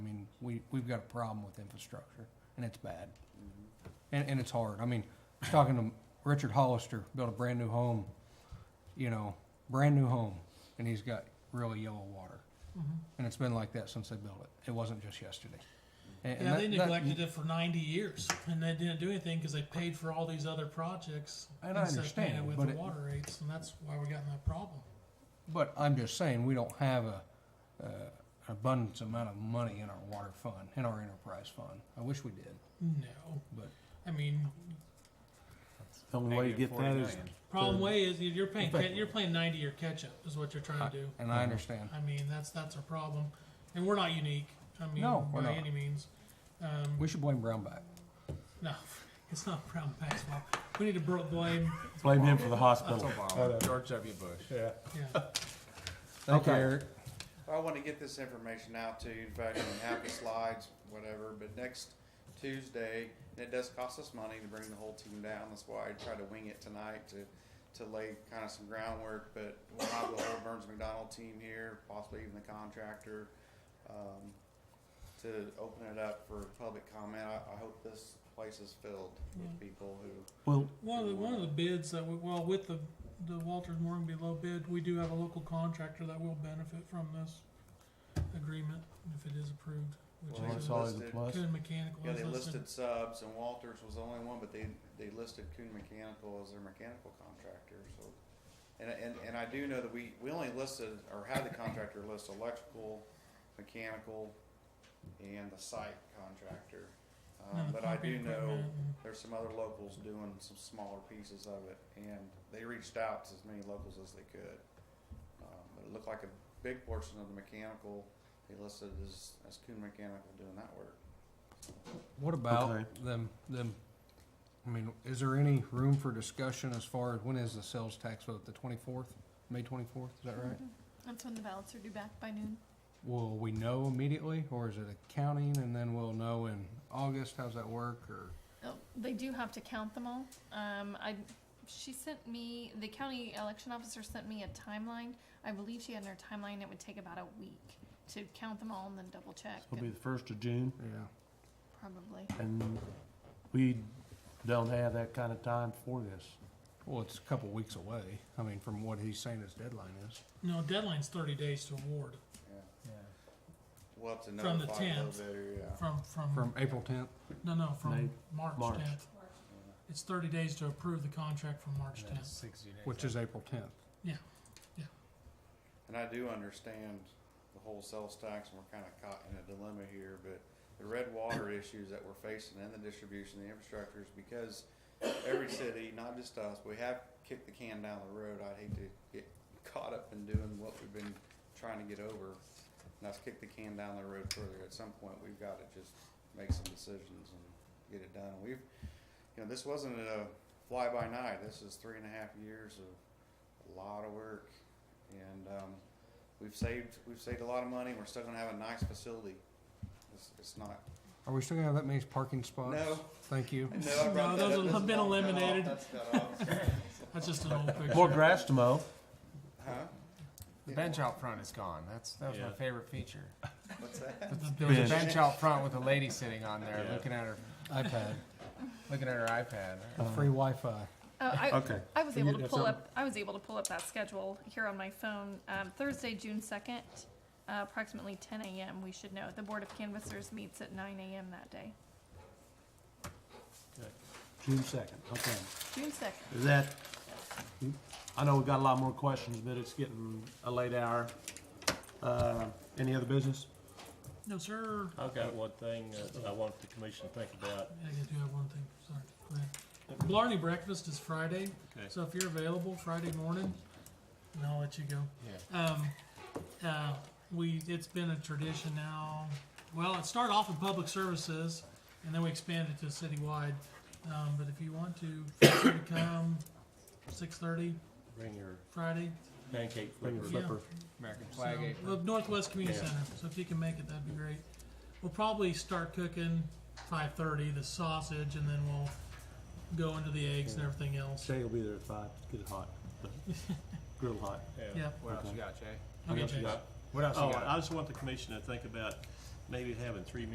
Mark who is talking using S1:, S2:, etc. S1: we, we've got a problem with infrastructure, and it's bad. And, and it's hard. I mean, I was talking to Richard Hollister, built a brand new home, you know, brand new home, and he's got really yellow water.
S2: Mm-hmm.
S1: And it's been like that since they built it. It wasn't just yesterday. And- and
S2: Yeah, they
S1: that- that-
S2: neglected it for 90 years, and they didn't do anything because they paid for all these other projects.
S1: And I
S2: instead of paying
S1: understand,
S2: it with
S1: but
S2: the
S1: it-
S2: water rates, and that's why we got in that problem.
S1: But I'm just saying, we don't have a, uh, abundance amount of money in our water fund, in our enterprise fund. I wish we did,
S2: No,
S1: but
S2: I mean,
S3: The only way to get that is,
S2: problem
S3: Third.
S2: way is you- you're paying
S3: Effect-
S2: ca- you're playing 90 year catch up is what you're trying to do.
S1: and I understand.
S2: I mean, that's that's a problem, and we're not unique. I mean,
S1: No,
S2: by
S1: we're not.
S2: any means. Um,
S1: We should blame Brownback.
S2: no, it's not Brown Pack's fault. We need to bro- blame.
S3: blame him for the hospital.
S4: Obama, George W. Bush.
S3: Yeah.
S2: Yeah,
S1: Thank you,
S3: Okay.
S1: Eric.
S5: I want to get this information out to you, in fact, I can have the slides, whatever, but next Tuesday, and it does cost us money to bring the whole team down, that's why I tried to wing it tonight to, to lay kind of some groundwork, but we'll have the whole Burns McDonald team here, possibly even the contractor, um, to open it up for public comment, I, I hope this place is filled with people who,
S3: Well,
S2: One of the, one of the bids that we, well, with the, the Walters Morganby low bid, we do have a local contractor that will benefit from this agreement if it is approved,
S5: Well,
S2: which
S3: that's
S2: is
S5: all-
S3: always a plus.
S2: Coon Mechanical.
S5: yeah, they
S2: is listed.
S5: listed subs, and Walters was the only one, but they, they listed Coon Mechanical as their mechanical contractor, so. And, and, and I do know that we, we only listed, or had the contractor list electrical, mechanical, and the site contractor. Um,
S2: And the
S5: but I do
S2: pumping
S5: know
S2: equipment and-
S5: there's some other locals doing some smaller pieces of it, and they reached out to as many locals as they could. Um, but it looked like a big portion of the mechanical, they listed as, as Coon Mechanical doing that work.
S1: What about
S3: Okay.
S1: them, them, I mean, is there any room for discussion as far as when is the sales tax vote, the twenty-fourth, May twenty-fourth, is that right?
S6: That's when the ballots are due back by noon.
S1: Will we know immediately, or is it a counting and then we'll know in August, how's that work, or?
S6: Oh, They do have to count them all. Um, I, she sent me, the county election officer sent me a timeline. I believe she had in her timeline, it would take about a week to count them all and then double check.
S3: it'll be the first of June,
S1: Yeah.
S6: Probably.
S3: and we don't have that kind of time for this.
S1: Well, it's a couple weeks away, I mean, from what he's saying his deadline is.
S2: No, deadline's thirty days to award
S5: Yeah. We'll have to
S2: From the
S5: notify a little
S2: 10th.
S5: bit, yeah.
S2: from, from,
S1: From April tenth,
S2: no, no, from
S3: May-
S2: March
S3: March.
S2: tenth. It's thirty days to approve the contract from March tenth.
S1: which is April tenth.
S5: And I do understand the whole sales tax, and we're kind of caught in a dilemma here, but the red water issues that we're facing and the distribution, the infrastructure is because every city, not just us, we have kicked the can down the road. I'd hate to get caught up in doing what we've been trying to get over. And that's kick the can down the road further. At some point, we've got to just make some decisions and get it done. We've, you know, this wasn't a fly-by-night. This is three and a half years of a lot of work. And, um, we've saved, we've saved a lot of money. We're still gonna have a nice facility. It's, it's not,
S1: Are we still gonna have that many parking spots?
S5: No.
S1: Thank you.
S5: no, I brought
S2: No,
S5: that
S2: those
S5: up. That's not
S2: have been
S5: cut off.
S2: eliminated.
S5: That's cut off.
S2: That's just an old picture.
S3: More grass to mow.
S5: Huh?
S4: The bench out front is gone. That's that was my favorite feature.
S5: What's that?
S4: There was
S3: Bench.
S4: a bench out front with a lady sitting on there,
S3: Yeah.
S4: looking at her,
S1: iPad,
S4: looking at her iPad.
S1: free Wi-Fi.
S6: Oh, I,
S3: Okay.
S6: I was
S3: You
S6: able to
S3: have
S6: pull
S3: something?
S6: up, I was able to pull up that schedule here on my phone. Um, Thursday, June second, uh, approximately ten AM, we should know. The Board of Canvassers meets at nine AM that day,
S3: June second, okay.
S6: June second.
S3: Is that, I know we've got a lot more questions, but it's getting a late hour. Uh, any other business?
S2: No, sir.
S7: I've got one thing that I want the commission to think about.
S2: I do have one thing, sorry, go ahead. Blarney Breakfast is Friday,
S7: Okay.
S2: so if you're available Friday morning, and I'll let you go. Yeah. Um, uh, we, it's been a tradition now, well, it started off in public services, and then we expanded to citywide. Um, but if you want to, feel free to come six thirty
S7: Bring your
S2: Friday.
S7: pancake
S3: Bring your
S7: flippers.
S2: Yeah.
S3: flipper.
S4: American
S2: So, the Northwest Community
S7: Yeah.
S2: Center. So if you can make it, that'd be great. We'll probably start cooking five thirty the sausage, and then we'll go into the eggs and everything else.
S3: Shay will be there at five, get it hot, grill hot.
S7: Yeah.
S2: Yep.
S4: What else you got, Jay?
S3: What
S2: Okay,
S3: else you
S2: Jason.
S3: got?
S4: What else
S7: Oh,
S4: you got?
S7: I just want the commission to think about maybe having three